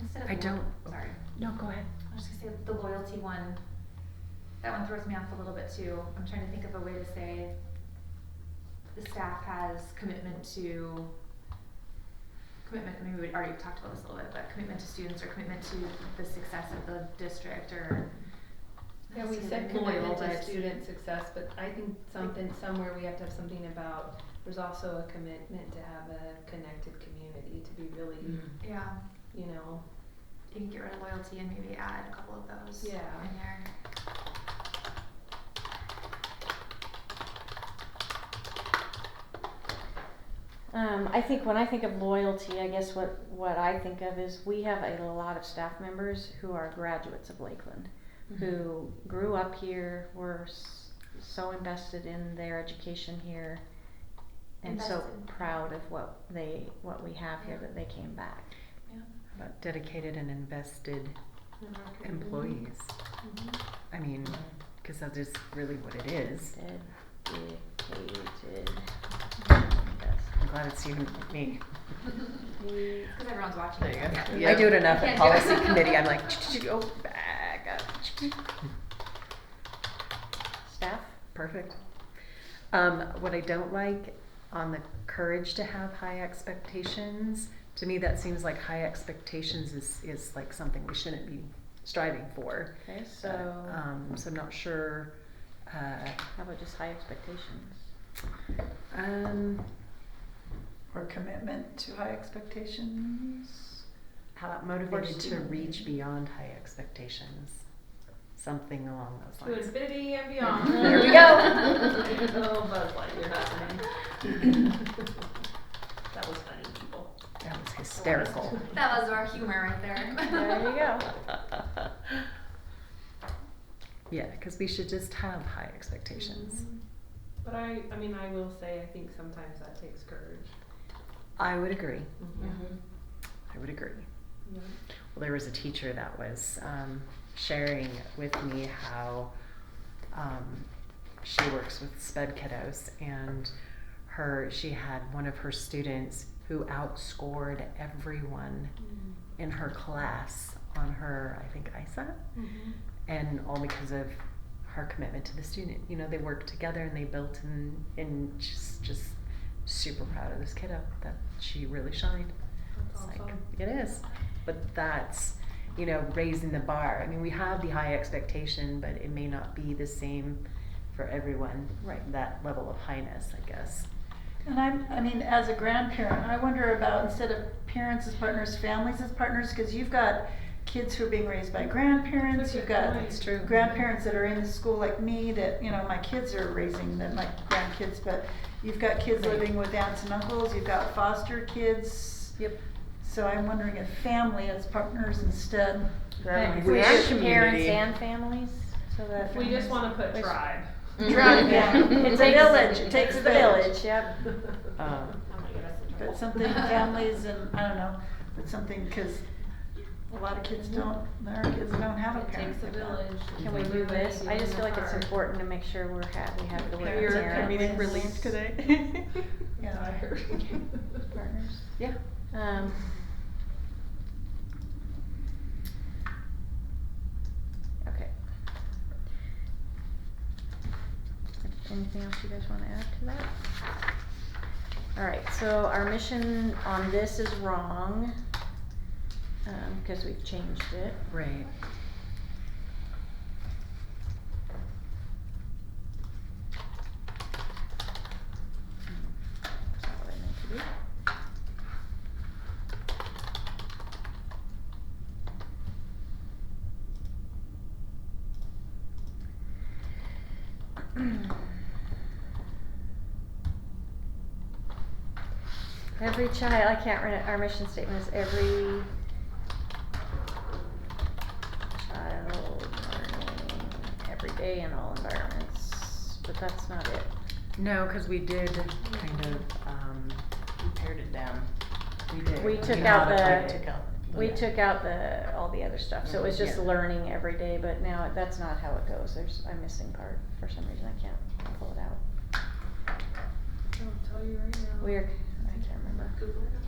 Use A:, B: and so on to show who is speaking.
A: Instead of
B: I
A: lo-
B: don't-
A: Sorry,
B: No, go ahead.
A: I was just gonna say the loyalty one, that one throws me off a little bit too. I'm trying to think of a way to say the staff has commitment to, commitment, I mean, we already talked about this a little bit, but commitment to students or commitment to the success of the district or.
C: Yeah, we said
A: Loyal,
C: commitment to
A: but-
C: student success, but I think something, somewhere we have to have something about, there's also a commitment to have a connected community, to be really,
B: Mm.
A: Yeah,
C: you know,
A: you can get rid of loyalty and maybe add a couple of those in
C: Yeah.
A: there.
D: Um, I think when I think of loyalty, I guess what, what I think of is we have a lot of staff members who are graduates of Lakeland,
A: Mm-hmm.
D: who grew up here, were s- so invested in their education here, and
A: Invested.
D: so proud of what they what we have here
A: Yeah.
D: that they came back.
A: Yeah.
B: About dedicated and invested
A: Mm-hmm.
B: employees.
C: Mhm.
B: I mean, because that is really what it is.
D: Dedicated.
B: I'm glad it's you and me.
D: invested.
A: Because everyone's watching.
B: There you go.
A: Yeah.
B: I do it enough
A: You can't
B: at
A: do it.
B: policy committee. I'm like, oh, back up.
D: Staff.
B: Perfect. Um, what I don't like on the courage to have high expectations, to me, that seems like high expectations is, is like something we shouldn't be striving for.
D: Okay,
B: Uh,
D: so
B: Um, so I'm not sure, uh,
D: how about just high expectations?
B: um,
E: Or commitment to high expectations?
B: how about motivated to
E: student.
B: reach beyond high expectations? Something along those
C: To
B: lines.
C: infinity and beyond.
B: There we
D: go.
C: Oh, Buzz Lightyear, that's That was funny, people.
B: That was hysterical.
A: That was our humor right there.
D: There you go.
B: Yeah, because we should just have high expectations.
C: Mhm. But I, I mean, I will say, I think sometimes that takes courage.
B: I would agree.
C: Mhm.
B: I would agree.
C: Yeah.
B: Well, there was a teacher that was um, sharing with me how um, she works with sped kiddos, and her she had one of her students who outscored everyone
C: Mhm.
B: in her class on her, I think ISA, Mm-hmm.
C: Mhm.
B: and all because of her commitment to the student. You know, they worked together and they built, and and just just super proud of this kiddo that she really shined.
C: That's
B: It's like,
C: awesome.
B: it is. But that's, you know, raising the bar. I mean, we have the high expectation, but it may not be the same for everyone.
D: Right.
B: That level of highness, I guess.
E: And I'm, I mean, as a grandparent, I wonder about instead of parents as partners, families as partners, because you've got kids who are being raised by grandparents,
C: That's a
E: you've
C: good
E: got
C: point. That's
B: true.
E: grandparents that are in the school like me, that, you know, my kids are raising them, my grandkids, but you've got kids
B: Right.
E: living with aunts and uncles, you've got foster kids.
B: Yep.
E: So I'm wondering if family as partners instead.
B: Right.
D: We
B: Wish
D: should parents
B: community.
D: and families, so that.
C: We just wanna put
D: Wish-
C: tribe.
D: Tribe, yeah.
E: It's a village. It takes
D: the
E: a
D: village,
E: village.
D: yep.
B: Um,
C: Oh my God, that's the
E: But
C: trouble.
E: something families and, I don't know, but something, because a lot of kids don't, our kids don't have a
C: It
E: parent.
C: takes a
E: like that.
C: village.
D: Can we do this? I just feel like it's important to make sure we're ha- we have the word
E: Parents.
D: parents.
E: Parents. relieved
C: today?
E: Yeah.
C: Tired.
E: Partners.
B: yeah.
D: Um. Okay. Anything else you guys wanna add to that? Alright, so our mission on this is wrong, um, cause we've changed it.
B: Right.
D: That's not what I meant to do. Every child, I can't read it, our mission statement is every child learning every day in all environments, but that's not it.
B: No, because we did kind of. Um,
F: We pared it down.
B: we did.
D: We took out
B: modified
D: the-
B: it.
F: Took out the-
D: We took out the, all the other stuff, so it was just
B: Yeah.
D: learning every day, but now that's not how it goes, there's, I'm missing part, for some reason I can't pull it out.
C: I'll tell you right now.
D: Weird, I can't remember.
C: Google it.